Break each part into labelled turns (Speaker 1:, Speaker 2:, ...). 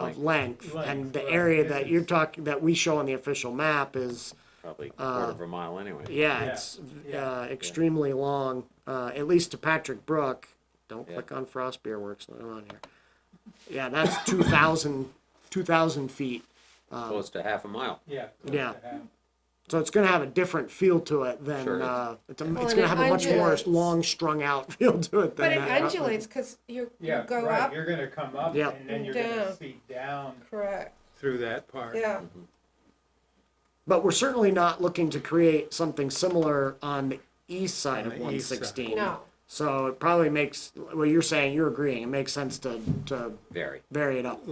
Speaker 1: of length, and the
Speaker 2: Length,
Speaker 1: area
Speaker 2: right,
Speaker 1: that
Speaker 2: yeah.
Speaker 1: you're talking, that we show on the official map is,
Speaker 3: probably quarter of a mile anyway.
Speaker 1: yeah,
Speaker 2: Yeah,
Speaker 1: it's
Speaker 2: yeah.
Speaker 1: uh, extremely long, uh, at least to Patrick Brook. Don't
Speaker 3: Yeah.
Speaker 1: click on Frost Beer Works, not on here. Yeah, that's 2,000, 2,000 feet.
Speaker 3: Close to half a mile.
Speaker 2: Yeah.
Speaker 1: Yeah. So it's going to have a different feel to it than,
Speaker 3: Sure.
Speaker 1: uh, it's, a,
Speaker 4: Well,
Speaker 1: it's going
Speaker 4: and
Speaker 1: to
Speaker 4: it
Speaker 1: have a much more
Speaker 4: undulates.
Speaker 1: long strung out feel to it than
Speaker 4: But it
Speaker 1: that.
Speaker 4: undulates because you you
Speaker 2: Yeah,
Speaker 4: go
Speaker 2: right,
Speaker 4: up,
Speaker 2: you're gonna come up
Speaker 1: Yeah.
Speaker 2: and then you're
Speaker 4: Down.
Speaker 2: gonna see down
Speaker 4: correct,
Speaker 2: through that part.
Speaker 4: yeah.
Speaker 1: But we're certainly not looking to create something similar on the east side
Speaker 2: On
Speaker 1: of
Speaker 2: the east side.
Speaker 1: 116.
Speaker 4: No.
Speaker 1: So it probably makes, well, you're saying, you're agreeing, it makes sense to, to
Speaker 3: Very.
Speaker 1: vary it up.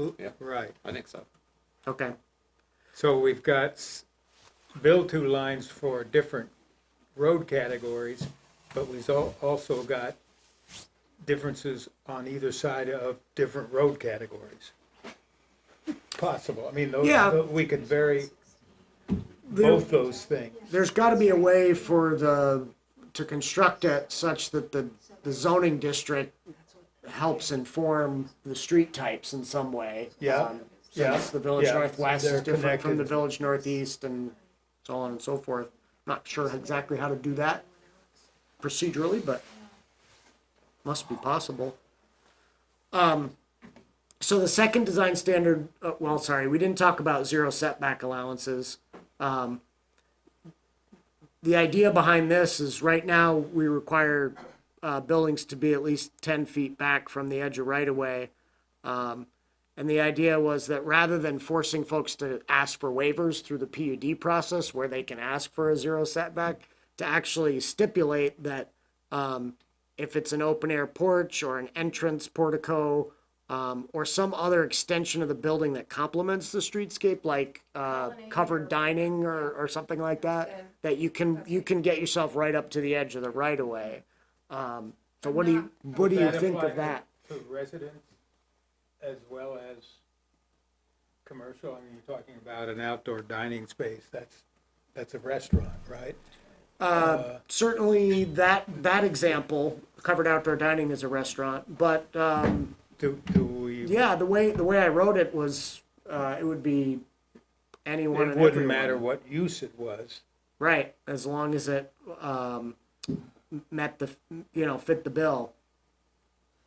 Speaker 2: Right,
Speaker 3: I think so.
Speaker 1: Okay,
Speaker 2: so we've got s- bill two lines for different road categories, but we've al- also got differences on either side of different road categories. Possible, I mean, those,
Speaker 1: Yeah.
Speaker 2: tho- we could vary
Speaker 1: There-
Speaker 2: both those things.
Speaker 1: there's gotta be a way for the, to construct it such that the, the zoning district helps inform the street types in some way.
Speaker 2: Yeah,
Speaker 1: Um,
Speaker 2: yeah,
Speaker 1: Since the village
Speaker 2: yeah,
Speaker 1: northwest is
Speaker 2: they're
Speaker 1: different from the
Speaker 2: connected.
Speaker 1: village northeast and so on and so forth. Not sure exactly how to do that procedurally, but must be possible. Um, so the second design standard, uh, well, sorry, we didn't talk about zero setback allowances. Um, the idea behind this is right now we require uh, buildings to be at least ten feet back from the edge of right of way. Um, and the idea was that rather than forcing folks to ask for waivers through the PUD process where they can ask for a zero setback, to actually stipulate that um, if it's an open air porch or an entrance portico um, or some other extension of the building that complements the streetscape, like uh, covered dining or, or something like that, that you can you can get yourself right up to the edge of the right of way. Um, so what do you what do you
Speaker 2: That
Speaker 1: think of
Speaker 2: apply
Speaker 1: that?
Speaker 2: To residents as well as commercial, I mean, you're talking about an outdoor dining space, that's, that's a restaurant, right?
Speaker 1: Uh, certainly that, that example, covered outdoor dining is a restaurant, but, um,
Speaker 2: Do, do we?
Speaker 1: yeah, the way, the way I wrote it was, uh, it would be anyone
Speaker 2: It
Speaker 1: and
Speaker 2: wouldn't matter
Speaker 1: everyone.
Speaker 2: what use it was,
Speaker 1: Right, as long as it, um, met the, you know, fit the bill.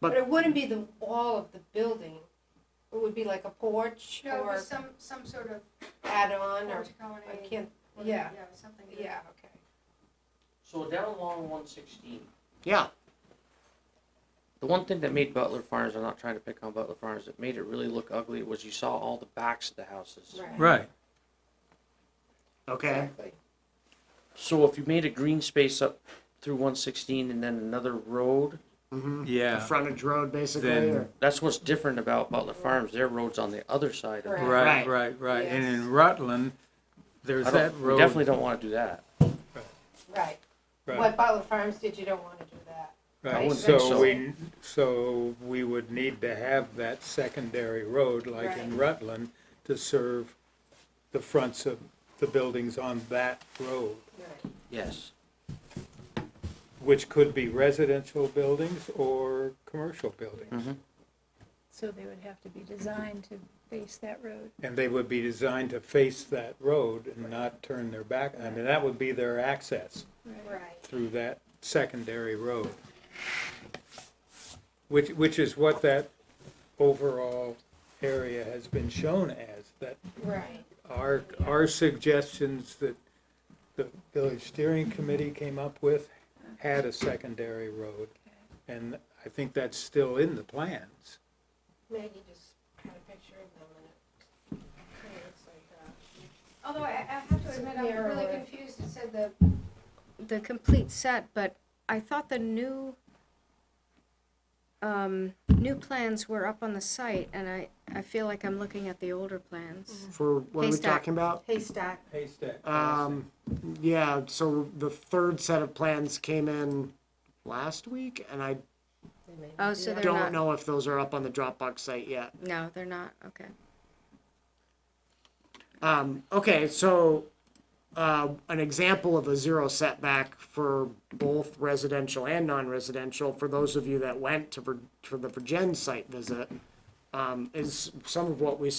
Speaker 4: But it wouldn't be the wall of the building. It would be like a porch
Speaker 5: No, it
Speaker 4: or
Speaker 5: was some, some sort of
Speaker 4: add-on or,
Speaker 5: portico
Speaker 4: I
Speaker 5: and a-
Speaker 4: can't,
Speaker 5: or,
Speaker 4: yeah,
Speaker 5: something. that-
Speaker 4: yeah, okay.
Speaker 6: So down along one sixteen,
Speaker 1: Yeah,
Speaker 6: the one thing that made Butler Farms, I'm not trying to pick on Butler Farms, that made it really look ugly was you saw all the backs of the houses.
Speaker 2: Right.
Speaker 1: okay,
Speaker 6: So if you made a green space up through one sixteen and then another road,
Speaker 1: the
Speaker 2: yeah,
Speaker 1: frontage road basically,
Speaker 2: Then-
Speaker 1: or,
Speaker 6: that's what's different about Butler Farms, their road's on the other side of it.
Speaker 1: Right.
Speaker 4: Right.
Speaker 2: right, right,
Speaker 4: And in Yes.
Speaker 2: Rutland, there's
Speaker 6: I don't, we definitely don't wanna do that.
Speaker 4: Right. What Butler Farms did, you don't want to do that. I
Speaker 2: Right,
Speaker 4: wouldn't
Speaker 2: so
Speaker 6: think
Speaker 2: we, so we would need to have that secondary road like in Rutland to serve the fronts of the buildings on that road,
Speaker 4: Right.
Speaker 6: Yes,
Speaker 2: which could be residential buildings or commercial buildings.
Speaker 7: So they would have to be designed to face that road.
Speaker 2: And they would be designed to face that road and not turn their back. I mean, that would be their access
Speaker 5: Right.
Speaker 2: through that secondary road. Which, which is what that overall area has been shown as, that
Speaker 4: Right.
Speaker 2: our, our suggestions that the village steering committee came up with had a secondary road. And I think that's still in the plans.
Speaker 4: Maggie just had a picture of them and it kind of looks like
Speaker 5: Although I, I have to
Speaker 4: It's
Speaker 5: admit, I'm really
Speaker 4: narrower.
Speaker 5: confused, it said the, the complete set, but I thought the new, um, new plans were up on the site, and I, I feel like I'm looking at the older
Speaker 4: Mm-hmm.
Speaker 5: plans.
Speaker 1: for what are we
Speaker 5: Haystack.
Speaker 1: talking about?
Speaker 4: a haystack.
Speaker 2: Haystack.
Speaker 1: Um, yeah, so the third set of plans came in last week, and I
Speaker 4: they made.
Speaker 5: Oh, so
Speaker 4: Yeah.
Speaker 5: they're
Speaker 1: don't
Speaker 5: not,
Speaker 1: know if those are up on the Dropbox site yet.
Speaker 5: no, they're not, okay.
Speaker 1: Um, okay, so, uh, an example of a zero setback for both residential and non-residential, for those of you that went to, Vir- for the Virgin site visit, um, is some of what we